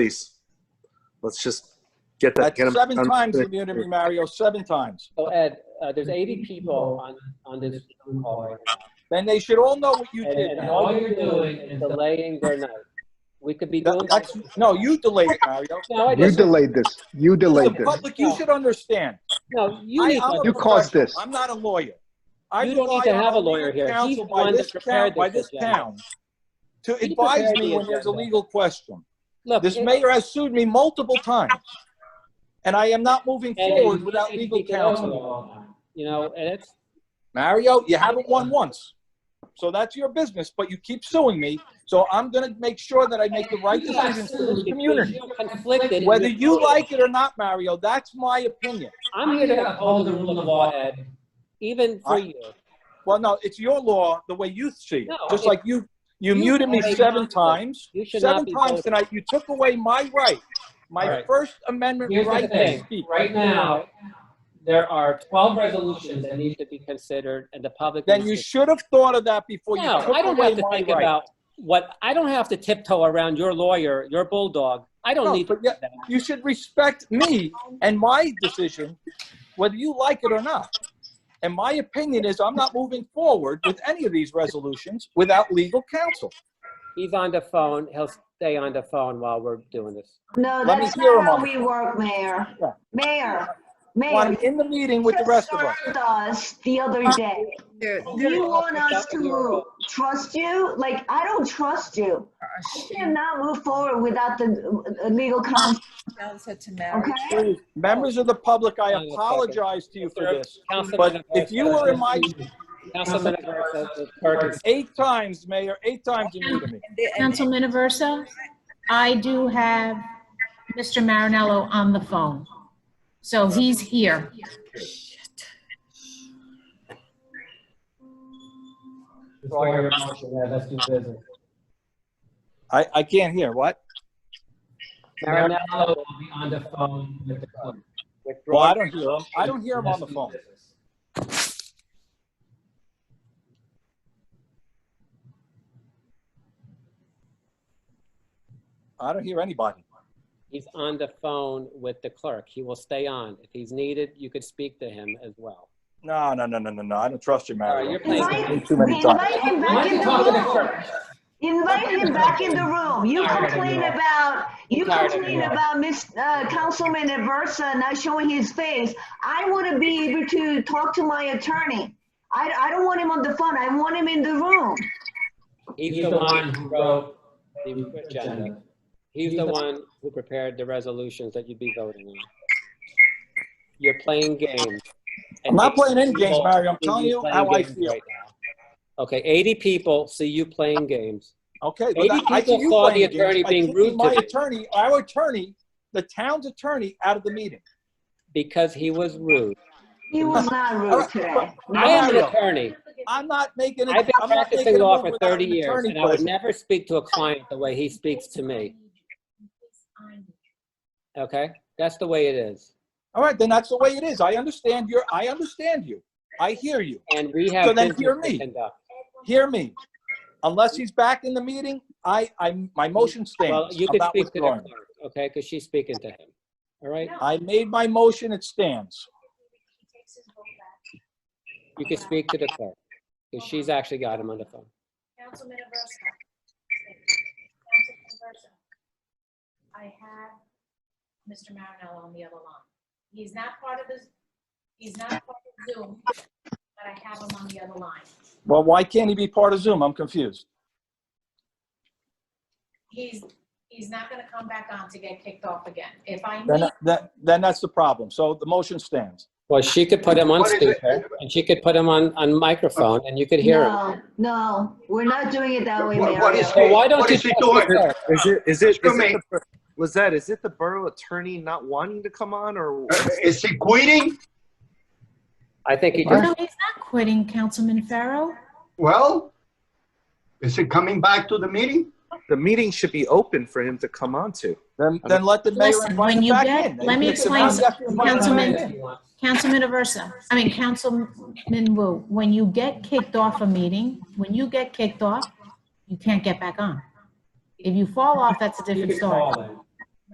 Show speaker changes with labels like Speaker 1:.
Speaker 1: please. Let's just get that.
Speaker 2: That's
Speaker 1: get 'em
Speaker 2: seven
Speaker 1: done.
Speaker 2: times you muted me, Mario, seven times.
Speaker 3: So Ed, uh, there's 80 people on, on this Zoom call right now.
Speaker 2: Then they should all know what you
Speaker 3: And,
Speaker 2: did.
Speaker 3: and
Speaker 2: Mario.
Speaker 3: all you're doing is delaying their night. We could be doing.
Speaker 2: That- that's- No, you delayed it, Mario.
Speaker 3: No, I
Speaker 4: You
Speaker 3: didn't.
Speaker 4: delayed this. You delayed
Speaker 2: The
Speaker 4: this.
Speaker 2: public, you should understand.
Speaker 3: No, you
Speaker 2: I-
Speaker 3: need,
Speaker 2: I'm a
Speaker 4: You caused
Speaker 2: professional.
Speaker 4: this.
Speaker 2: I'm not a lawyer. I
Speaker 3: You don't need
Speaker 2: rely
Speaker 3: to
Speaker 2: on
Speaker 3: have a
Speaker 2: legal
Speaker 3: lawyer here.
Speaker 2: counsel
Speaker 3: He's the
Speaker 2: by
Speaker 3: one that
Speaker 2: this
Speaker 3: prepared
Speaker 2: town- By
Speaker 3: this
Speaker 2: this
Speaker 3: agenda.
Speaker 2: town, to
Speaker 3: He
Speaker 2: advise
Speaker 3: prepared
Speaker 2: me
Speaker 3: the
Speaker 2: when there's a
Speaker 3: agenda.
Speaker 2: legal question.
Speaker 3: look.
Speaker 2: This
Speaker 3: it-
Speaker 2: mayor has sued me multiple times, and I am not moving
Speaker 3: and
Speaker 2: forward
Speaker 3: you
Speaker 2: without
Speaker 3: need to
Speaker 2: legal
Speaker 3: speak it over
Speaker 2: counsel.
Speaker 3: all the time, You know, and it's,
Speaker 2: Mario, you haven't won once. So that's your business, but you keep suing me. So I'm going to make sure that I make the right
Speaker 3: You got
Speaker 2: decisions for
Speaker 3: sued
Speaker 2: this
Speaker 3: because
Speaker 2: community.
Speaker 3: you conflicted in
Speaker 2: Whether
Speaker 3: your-
Speaker 2: you like it or not, Mario, that's my opinion.
Speaker 3: I'm here to uphold the rule of law, Ed, even for
Speaker 2: I-
Speaker 3: you.
Speaker 2: Well, no, it's your law the way you see it.
Speaker 3: No,
Speaker 2: Just
Speaker 3: it-
Speaker 2: like you, you
Speaker 3: you
Speaker 2: muted me
Speaker 3: are a
Speaker 2: seven
Speaker 3: monster.
Speaker 2: times.
Speaker 3: You should
Speaker 2: Seven
Speaker 3: not be
Speaker 2: times
Speaker 3: voting.
Speaker 2: tonight, you took away my right,
Speaker 3: All
Speaker 2: my
Speaker 3: right.
Speaker 2: First Amendment
Speaker 3: Here's the
Speaker 2: right to
Speaker 3: thing,
Speaker 2: speak.
Speaker 3: right now, there are 12 resolutions that need to be considered and the public.
Speaker 2: Then
Speaker 3: needs
Speaker 2: you
Speaker 3: to-
Speaker 2: should have thought of that before you
Speaker 3: No,
Speaker 2: took
Speaker 3: I don't have
Speaker 2: away
Speaker 3: to
Speaker 2: my
Speaker 3: think
Speaker 2: right.
Speaker 3: about what, I don't have to tiptoe around your lawyer, your bulldog.
Speaker 2: No,
Speaker 3: I don't need to
Speaker 2: but yeah-
Speaker 3: do that.
Speaker 2: You should respect me and my decision, whether you like it or not. And my opinion is I'm not moving forward with any of these resolutions without legal counsel.
Speaker 3: He's on the phone. He'll stay on the phone while we're doing this.
Speaker 5: No,
Speaker 2: Let me
Speaker 5: that's
Speaker 2: hear
Speaker 5: not
Speaker 2: 'em
Speaker 5: how
Speaker 2: on.
Speaker 5: we work, Mayor.
Speaker 2: Yeah.
Speaker 5: Mayor,
Speaker 2: While
Speaker 5: Mayor.
Speaker 2: I'm in the meeting with the
Speaker 5: you
Speaker 2: rest of us.
Speaker 5: served us the other day.
Speaker 6: There, there,
Speaker 5: You want us to
Speaker 3: There-
Speaker 5: trust you? Like, I don't trust you. I cannot move forward without the uh, legal counsel,
Speaker 6: sounds such a marriage.
Speaker 5: okay?
Speaker 2: Please, Members of the public, I
Speaker 3: Hang on a second.
Speaker 2: apologize to you for this.
Speaker 3: Councilman
Speaker 2: But if you
Speaker 3: Aversa-
Speaker 2: were in my,
Speaker 3: Councilman Aversa, Perkins,
Speaker 2: eight times, Mayor, eight times you muted me.
Speaker 6: And they- and
Speaker 7: Councilman Aversa, I do have Mr. Marinello on the phone. So he's here.
Speaker 3: before your motion, yeah, let's do business.
Speaker 2: I, I can't hear, what?
Speaker 3: Marinello will be on the phone with the clerk.
Speaker 2: Well, I don't hear him. I don't hear him on the phone. I don't hear anybody.
Speaker 3: He's on the phone with the clerk. He will stay on. If he's needed, you could speak to him as well.
Speaker 2: No, no, no, no, no, no, I don't trust you,
Speaker 3: All
Speaker 2: Mario.
Speaker 3: right, you're
Speaker 5: Invite
Speaker 2: Too many times.
Speaker 5: invite him
Speaker 3: Why
Speaker 5: back
Speaker 3: don't
Speaker 5: in
Speaker 3: you talk to the
Speaker 5: the room.
Speaker 3: clerk?
Speaker 5: Invite him back in the room. You
Speaker 3: Tired of
Speaker 5: complain
Speaker 3: you all.
Speaker 5: about, you
Speaker 3: Tired of
Speaker 5: complain
Speaker 3: you all.
Speaker 5: about Miss, uh, Councilman Aversa not showing his face. I want to be able to talk to my attorney. I, I don't want him on the phone. I want him in the room.
Speaker 3: He's the one who wrote the agenda. He's the one who prepared the resolutions that you'd be voting on. You're playing games.
Speaker 2: I'm not playing any games,
Speaker 3: People
Speaker 2: Mario. I'm
Speaker 3: see
Speaker 2: telling you
Speaker 3: playing
Speaker 2: how I
Speaker 3: games
Speaker 2: feel.
Speaker 3: right now. Okay, 80 people see you playing games.
Speaker 2: Okay,
Speaker 3: Maybe
Speaker 2: but I- I
Speaker 3: people
Speaker 2: see you
Speaker 3: saw
Speaker 2: playing
Speaker 3: the attorney
Speaker 2: games. I
Speaker 3: being
Speaker 2: kicked
Speaker 3: rude to
Speaker 2: My
Speaker 3: them.
Speaker 2: attorney, our attorney, the town's attorney out of the meeting.
Speaker 3: because he was rude.
Speaker 5: He was not rude today.
Speaker 3: I am an
Speaker 2: Mario.
Speaker 3: attorney.
Speaker 2: I'm not making it.
Speaker 3: I've been
Speaker 2: I'm not
Speaker 3: practicing
Speaker 2: making a
Speaker 3: law
Speaker 2: move
Speaker 3: for
Speaker 2: without
Speaker 3: 30
Speaker 2: an
Speaker 3: years,
Speaker 2: attorney
Speaker 3: and I would
Speaker 2: present.
Speaker 3: never speak to a client the way he speaks to me, okay? That's the way it is.
Speaker 2: All right, then that's the way it is. I understand your, I understand you. I hear you.
Speaker 3: And we have
Speaker 2: So then
Speaker 3: business
Speaker 2: hear
Speaker 3: to
Speaker 2: me.
Speaker 3: conduct.
Speaker 2: Hear me. Unless he's back in the meeting, I, I, my motion stands.
Speaker 3: Well, you
Speaker 2: I'm
Speaker 3: could
Speaker 2: not
Speaker 3: speak to the
Speaker 2: withdrawing.
Speaker 3: clerk, okay, because she's speaking to him, all right?
Speaker 2: I made my motion, it stands.
Speaker 3: You could speak to the clerk, because she's actually got him on the phone.
Speaker 7: Councilman Aversa. Councilman Aversa. I have Mr. Marinello on the other line. He's not part of this, he's not part of Zoom, but I have him on the other line.
Speaker 2: Well, why can't he be part of Zoom? I'm confused.
Speaker 7: He's, he's not gonna come back on to get kicked off again. If I
Speaker 2: Then,
Speaker 7: need
Speaker 2: that, then that's the problem. So the motion stands.
Speaker 3: Well, she could put him on
Speaker 4: What is it?
Speaker 3: speaker, and she could put him on, on microphone, and you could hear him.
Speaker 5: No, no, we're not doing it that way,
Speaker 4: What- what
Speaker 5: Mario.
Speaker 4: is
Speaker 3: So why don't
Speaker 4: What
Speaker 3: you
Speaker 4: is he
Speaker 3: talk to the
Speaker 4: doing?
Speaker 3: clerk?
Speaker 8: Is it, is it,
Speaker 4: Excuse
Speaker 8: is
Speaker 4: me.
Speaker 8: it the- was that, is it the borough attorney not wanting to come on or?
Speaker 4: Uh, Is he quitting?
Speaker 3: I think he
Speaker 7: No,
Speaker 3: just,
Speaker 7: he's not quitting, Councilman Farrow.
Speaker 4: Well, is he coming back to the meeting?
Speaker 8: The meeting should be open for him to come on to.
Speaker 2: Then, then let the mayor
Speaker 7: Listen,
Speaker 2: invite
Speaker 7: when
Speaker 2: him
Speaker 7: you
Speaker 2: back
Speaker 7: get-
Speaker 2: in.
Speaker 7: let me
Speaker 2: If it's
Speaker 7: explain
Speaker 2: not,
Speaker 7: something,
Speaker 2: you have to invite him back
Speaker 7: Councilman.
Speaker 2: in.
Speaker 7: Councilman Aversa, I mean, Councilman Wu, when you get kicked off a meeting, when you get kicked off, you can't get back on. If you fall off, that's a
Speaker 3: you
Speaker 7: different
Speaker 3: could
Speaker 7: story.
Speaker 3: call him.